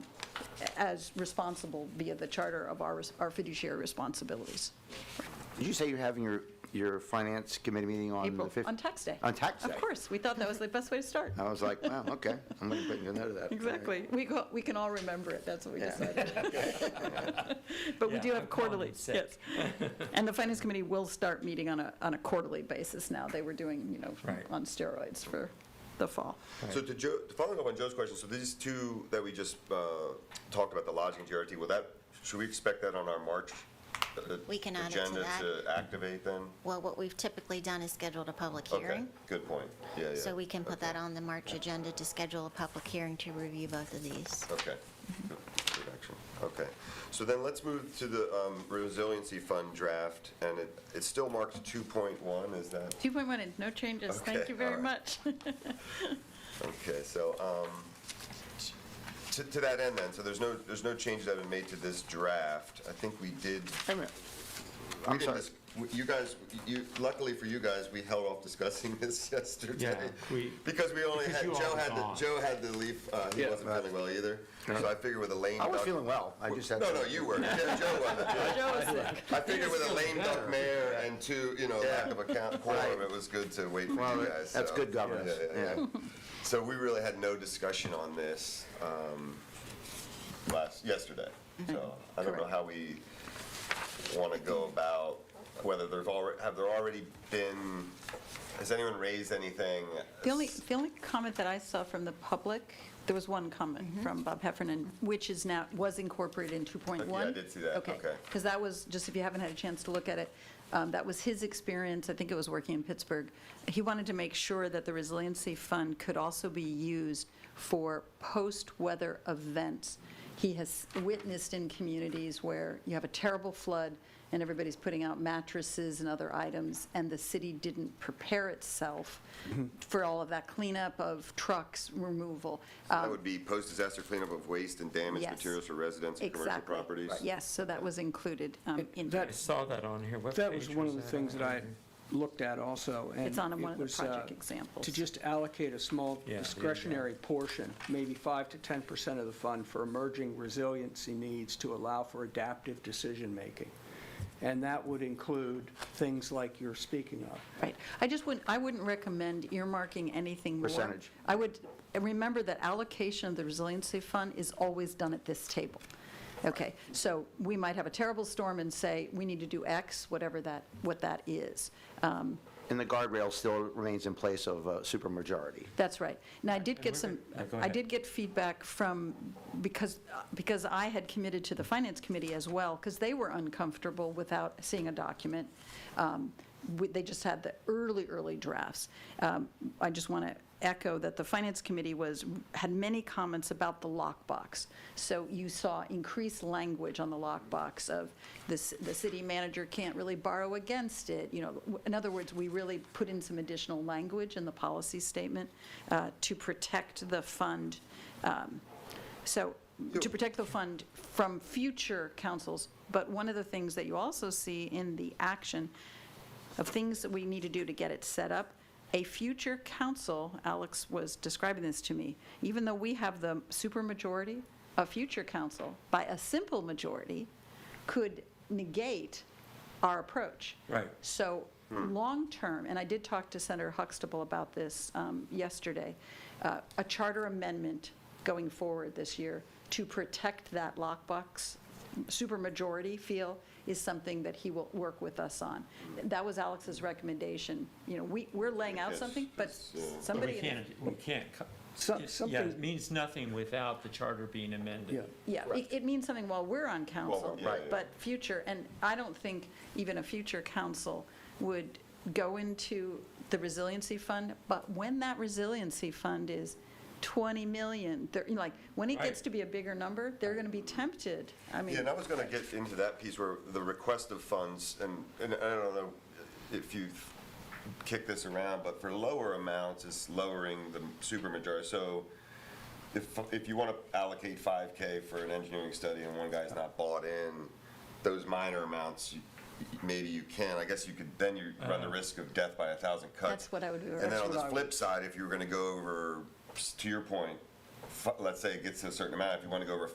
as responsible via the charter of our res- our fiduciary responsibilities. Did you say you're having your, your finance committee meeting on the April, 15th? on tax day. On tax day? Oh, Of course, we thought that was the best way to start. I was like, wow, okay, I'm going to put a note of that. All right. Exactly. We go, we can all remember it, that's what we Yeah. decided. But we Yeah, do I'm have calling quarterly, in sick. yes. And the finance committee will start meeting on a, on a quarterly basis now. They were doing, you know, Right. on steroids for the fall. So to Joe, following up on Joe's question, so these two that we just uh, talked about, the lodging and GRT, will that, should we expect that on our March? uh, We can add it to that. Agenda to activate then? Well, what we've typically done is scheduled a public Okay, hearing. good point. Yeah, yeah. So we can put Okay. that on the March agenda to schedule a public hearing to review both of these. Okay. Good good action. Okay. So then let's move to the um, resiliency fund draft, and it, it's still marked 2.1, is that? 2.1 is no changes, thank Okay, you very all right. much. Okay, so, um, to, to that end then, so there's no, there's no changes that have been made to this draft. I think we did. Hey, man. we I'm did sorry. dis- w- You guys, you, luckily for you guys, we held off discussing this yesterday. Yeah, we- Because we only because had, you all Joe were had, to- gone. Joe had to leave, uh, he Yeah. wasn't feeling well either. So I figured with a lame I was duck- feeling well, I just had. No, no, you were. Yeah, Joe wasn't. Joe- Joe was sick. I figured with a lame duck mayor and two, you know, lack Yeah. of account Right. quorum, it was good to wait for Well, you that- guys. that's so- good governance, Yeah, yeah, yeah. So we really had no discussion on this um, last, yesterday. So I Mm-hmm. don't know Correct. how we want to go about, whether there's already, have there already been, has anyone raised anything? The only, the only comment that I saw from the public, there was one comment from Bob Heffernan, which is now, was incorporated in 2.1. Okay, I did see that. Okay. Because that was, just if you haven't had a chance to look at it, um, that was his experience, I think it was working in Pittsburgh. He wanted to make sure that the resiliency fund could also be used for post-weather events. He has witnessed in communities where you have a terrible flood, and everybody's putting out mattresses and other items, and the city didn't prepare itself Mm-hmm. for all of that cleanup of trucks, removal. That would be post-disaster cleanup of waste and damaged um, Yes. materials for residents and commercial Exactly. properties? Yes, so that was included um, It- in that- here. I saw that on here. What That was page one of the that things on that I here? looked at also, and. It's on it one of the was, uh, project examples. To just allocate a small Yeah, there you go. discretionary portion, maybe 5 to 10% of the fund for emerging resiliency needs to allow for adaptive decision-making. And that would include things like you're speaking of. Right. I just wouldn't, I wouldn't recommend earmarking anything more. Percentage. I would, remember that allocation of the resiliency fund is always done at this table. Okay, so we might have a terrible storm and say, we need to do X, whatever that, what that is. Um, And the guardrail still remains in place of uh, supermajority. That's right. Now, I did get we're some, good. No, go I ahead. did get feedback from, because, because I had committed to the Finance Committee as well, because they were uncomfortable without seeing a document. Um, we- They just had the early, early drafts. Um, I just want to echo that the Finance Committee was, had many comments about the lockbox. So you saw increased language on the lockbox of this, the city manager can't really borrow against it, you know. W- In other words, we really put in some additional language in the policy statement uh, to protect the fund, um, so, to protect the fund from future councils. But one of the things that you also see in the action of things that we need to do to get it set up. A future council, Alex was describing this to me, even though we have the supermajority, a future council, by a simple majority, could negate our approach. Right. So, long-term, and I did talk to Senator Huxtable about this um, yesterday, uh, a charter amendment going forward this year to protect that lockbox, supermajority feel, is something that he will work with us on. That was Alex's recommendation. You know, we, we're laying out Yes, something, but yes, yeah. But somebody. We in- can't, we can't, co- So- it's- yeah, it Something, means nothing without the charter being yeah. amended. Yeah, it, it means something while we're on council, yeah, Right. yeah. but future, and I don't think even a future council would go into the resiliency fund, but when that resiliency fund is 20 million, they're, you know, like, when it gets Right. to be a bigger number, they're going to be tempted. I mean, Yeah, and I was going to get into that piece where the request of funds, and, and I don't know if you kick this around, but for lower amounts, it's lowering the supermajority. So if, if you want to allocate 5K for an engineering study and one guy's not bought in, those minor amounts, you- maybe you can, I guess you could, then you run the risk of death by a thousand cuts. That's what I would do, And then that's on the what I would- flip side, if you were going to go over, to your point, fi- let's say it gets to a certain amount, if you want to go over